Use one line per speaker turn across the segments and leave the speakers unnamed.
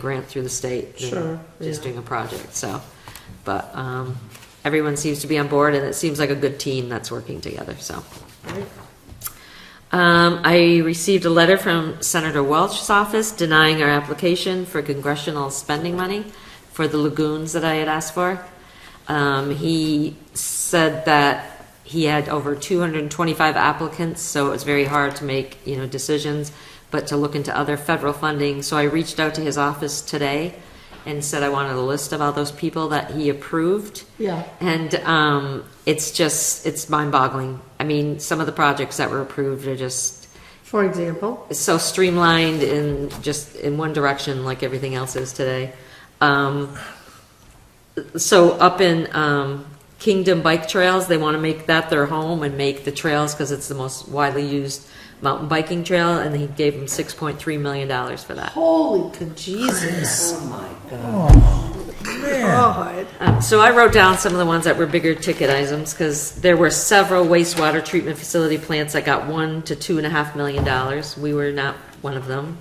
grant through the state
Sure,
than just
yeah.
doing a project, so. But, um, everyone seems to be on board and it seems like a good team that's working together, so.
Right.
Um, I received a letter from Senator Welch's office denying our application for congressional spending money for the lagoons that I had asked for. Um, he said that he had over two hundred and twenty-five applicants, so it was very hard to make, you know, decisions, but to look into other federal funding. So I reached out to his office today and said I wanted a list of all those people that he approved.
Yeah.
And um, it's just, it's mind boggling. I mean, some of the projects that were approved are just
For example,
so streamlined in just in one direction like everything else is today. Um, so up in um, Kingdom Bike Trails, they want to make that their home and make the trails because it's the most widely used mountain biking trail. And he gave them $6.3 million for that.
holy Jesus! Oh my God. God.
Um, So I wrote down some of the ones that were bigger ticket items, because there were several wastewater treatment facility plants that got one to two and a half million dollars. We were not one of them.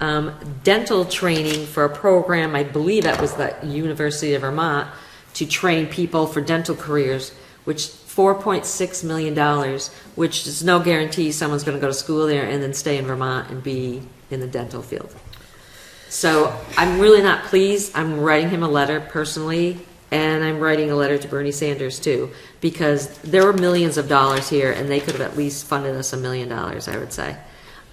Um, dental training for a program, I believe that was the University of Vermont, to train people for dental careers, which four point six million dollars, which is no guarantee someone's gonna go to school there and then stay in Vermont and be in the dental field. So I'm really not pleased. I'm writing him a letter personally, and I'm writing a letter to Bernie Sanders too, because there were millions of dollars here, and they could have at least funded us a million dollars, I would say.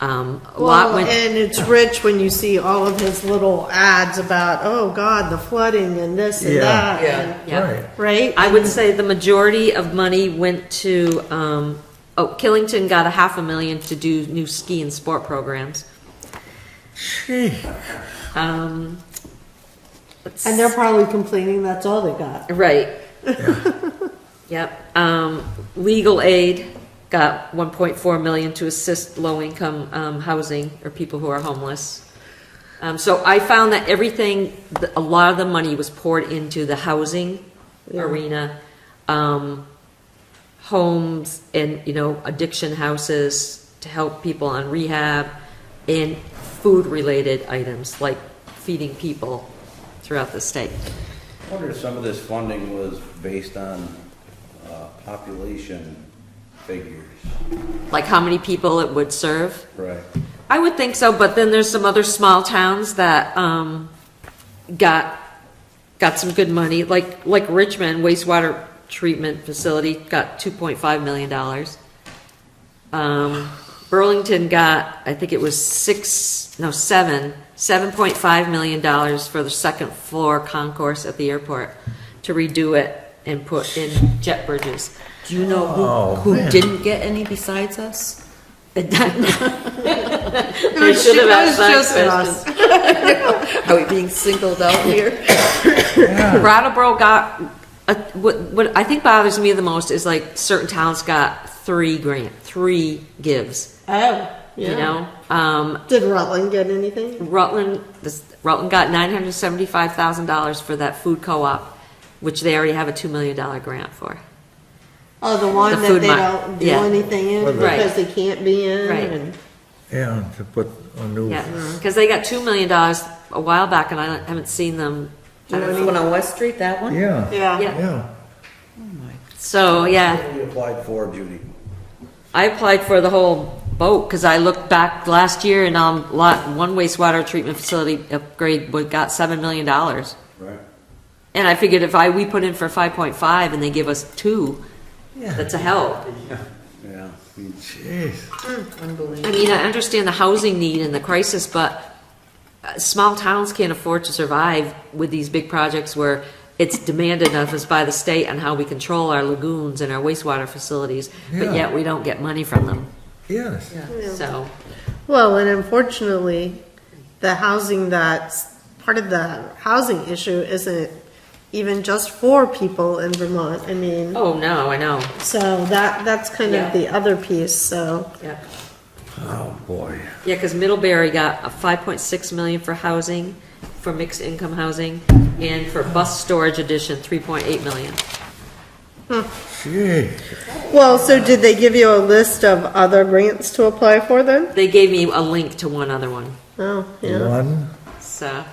Um, a lot
Well,
went,
and it's rich when you see all of his little ads about, oh God, the flooding and this and
Yeah.
that. and-
yeah.
Right.
Right?
I would say the majority of money went to, um, oh, Killington got a half a million to do new ski and sport programs. Um, let's-
And they're probably complaining that's all they got.
Right. Yep. Um, legal aid got one point four million to assist low-income, um, housing or people who are homeless. Um, so I found that everything, th- a lot of the money was poured into the housing arena, um, homes and, you know, addiction houses to help people on rehab and food-related items like feeding people throughout the state.
I wonder if some of this funding was based on uh, population figures.
like how many people it would serve?
Right.
I would think so, but then there's some other small towns that, um, got, got some good money, like, like Richmond wastewater treatment facility got two point five million dollars. Um, Burlington got, I think it was six, no, seven, seven point five million dollars for the second floor concourse at the airport to redo it and put in jet bridges. Do you know
Oh,
who, who
man.
didn't get any besides us?
It
I should have asked that
just
question.
us.
Are we being singled out here?
Brattleboro got, uh, what, what I think bothers me the most is like certain towns got three grant, three gives,
Oh,
you
yeah.
know? Um,
Did Rutland get anything?
Rutland, this- Rutland got nine hundred seventy-five thousand dollars for that food co-op, which they already have a two million dollar grant for.
Oh, the one
The
that
food
they
mart,
don't do
yeah.
anything in
Right.
because they can't be in.
Right.
and-
Yeah, to put a new,
Yeah, because they got two million dollars a while back and I haven't seen them. I don't
The
know.
one on West Street, that one?
yeah,
Yeah.
Yeah,
yeah.
so, yeah.
What we applied for, Judy?
I applied for the whole boat, because I looked back last year and, um, lot, one wastewater treatment facility upgrade would, got seven million dollars.
Right.
And I figured if I, we put in for five point five and they give us two, that's a help.
Yeah.
Jeez,
I mean, I understand the housing need and the crisis, but uh, small towns can't afford to survive with these big projects where it's demanded of us by the state on how we control our lagoons and our wastewater facilities, but
Yeah.
yet we don't get money from them,
yes.
so.
Well, and unfortunately, the housing that's, part of the housing issue isn't even just for people in Vermont. I mean,
Oh, no, I know,
so that, that's kind
Yeah.
of the other piece, so.
yeah.
Oh, boy.
Yeah, because Middlebury got a five point six million for housing, for mixed income housing, and for bus storage addition, three point eight million.
Gee,
Well, so did they give you a list of other grants to apply for then?
They gave me a link to one other one,
Oh, yeah.
one,
so,